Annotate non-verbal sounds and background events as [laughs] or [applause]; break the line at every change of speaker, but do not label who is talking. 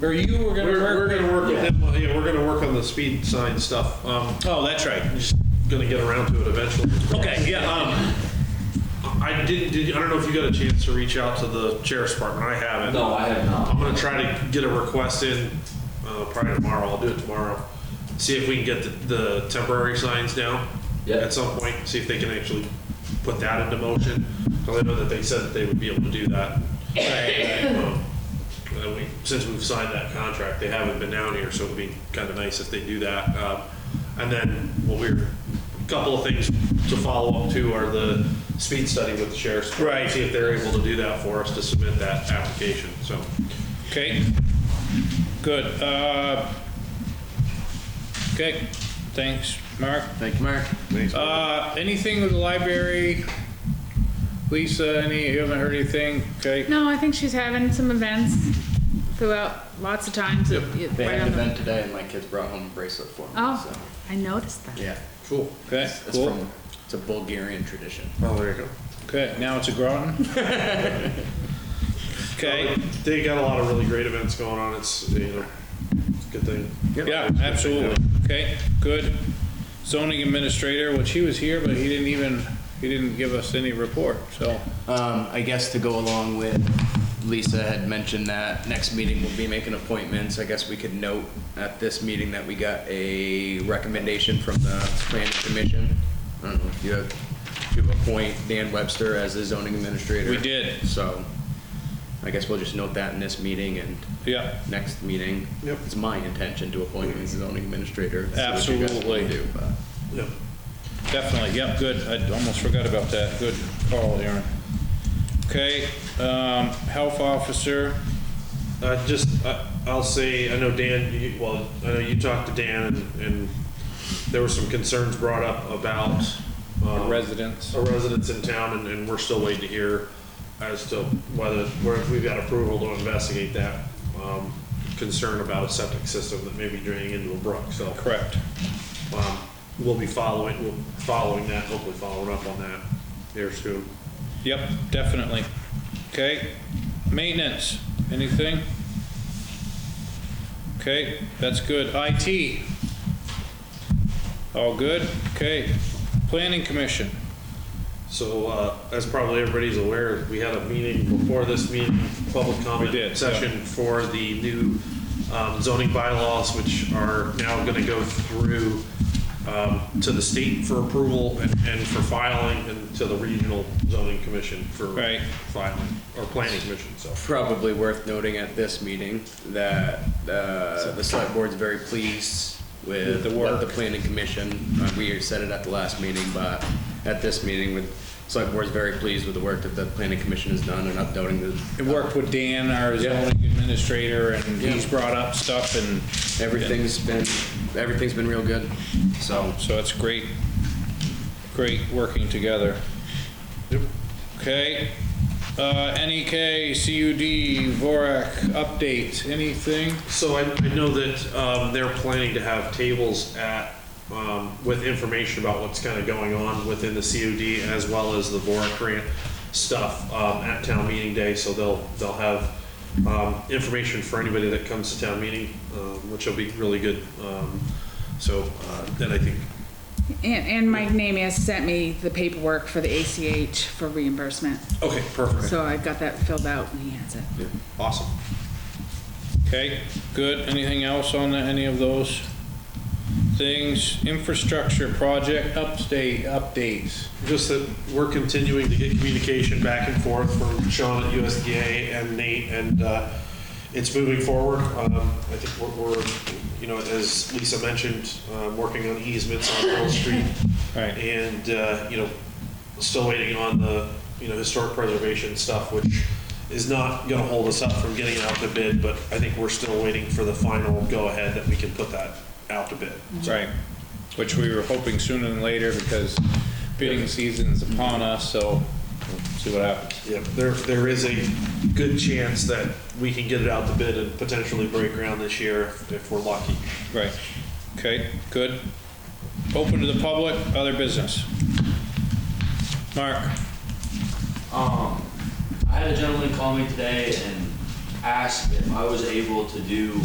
Or you were gonna
We're, we're
work
gonna
with,
work with him, yeah, we're gonna work on the speed sign stuff. Um,
Oh, that's right.
I'm just gonna get around to it eventually.
Okay, yeah,
Um, I didn't, did, I don't know if you got a chance to reach out to the sheriff's department, I haven't.
No, I have not.
I'm gonna try to get a request in, uh, probably tomorrow, I'll do it tomorrow. See if we can get the, the temporary signs down.
Yeah.
At some point, see if they can actually put that into motion, cause I know that they said that they would be able to do that. Um, and we- Since we've signed that contract, they haven't been down here, so it'd be kinda nice if they do that. Um, And then, what we're, a couple of things to follow up to are the speed study with the sheriff's. Right. See if they're able to do that for us to submit that application, so.
okay. Good. Uh, Okay, thanks, Mark.
Thank you, Mark.
Uh, anything with the library? Lisa, any, you haven't heard anything? Okay,
No, I think she's having some events throughout lots of times. Yep.
They had an event today and my kids brought home a bracelet for me, so,
Oh, I noticed that.
yeah.
Cool.
okay,
It's
cool.
from, it's a Bulgarian tradition.
Oh, there you go.
Okay, now it's a
[laughs]
Groton? Okay,
They got a lot of really great events going on. It's, you know, it's a good thing.
yeah, absolutely. Okay, good. Zoning administrator, which he was here, but he didn't even, he didn't give us any report, so.
Um, I guess to go along with, Lisa had mentioned that next meeting we'll be making appointments. I guess we could note at this meeting that we got a recommendation from the planning commission. I don't know if you have, to appoint Dan Webster as the zoning administrator.
We did.
So I guess we'll just note that in this meeting and
Yeah,
next meeting.
Yep.
It's my intention to appoint him as zoning administrator. See what you guys wanna
Absolutely.
do, but-
Yep.
definitely, yep, good. I almost forgot about that. Good call, Aaron. Okay, um, health officer,
Uh, just, I, I'll say, I know Dan, you, well, I know you talked to Dan and, and there were some concerns brought up about, um,
residents.
a residents in town and, and we're still waiting to hear as to whether, where if we've got approval to investigate that, um, concern about a septic system that may be draining into a brook, so.
Correct.
Um, we'll be following, we'll, following that, hopefully following up on that here soon.
Yep, definitely. Okay, maintenance, anything? Okay, that's good. IT? All good? Okay. Planning Commission?
So, uh, as probably everybody's aware, we had a meeting before this meeting, public
We did, yeah.
comment session for the new um, zoning bylaws, which are now gonna go through, um, to the state for approval and, and for filing, and to the regional zoning commission for
Right.
filing, or planning commission, so.
probably worth noting at this meeting that uh, the select board's very pleased
With
with
the
what the
work.
planning commission, uh, we said it at the last meeting, but at this meeting with, select board's very pleased with the work that the planning commission has done and updating
I
the,
worked with Dan, our zoning administrator, and he's
Yeah.
brought up stuff and.
everything's been, everything's been real good, so.
So it's great, great working together. Okay, uh, NEK, CUD, VORAC, update, anything?
So I, I know that, um, they're planning to have tables at, um, with information about what's kind of going on within the COD as well as the VORAC grant stuff, um, at town meeting day, so they'll, they'll have, um, information for anybody that comes to town meeting, um, which will be really good, um, so, uh, then I think,
And, and Mike Namie has sent me the paperwork for the ACH for reimbursement,
okay, perfect,
so I got that filled out and he has it.
awesome.
Okay, good, anything else on any of those things? Infrastructure project update, updates.
Just that we're continuing to get communication back and forth from Sean at USDA and Nate, and uh, it's moving forward. Um, I think we're, we're, you know, as Lisa mentioned, uh, working on easements on Pearl Street.
Right.
And, uh, you know, still waiting on the, you know, historic preservation stuff, which is not going to hold us up from getting it out to bid, but I think we're still waiting for the final go-ahead that we can put that out to bid.
Right, which we were hoping sooner than later because bidding season's upon us, so we'll see what happens.
Yep, there, there is a good chance that we can get it out the bid and potentially break ground this year if if we're lucky.
Right, okay, good. Open to the public, other business. Mark,
Um, I had a gentleman call me today and asked if I was able to do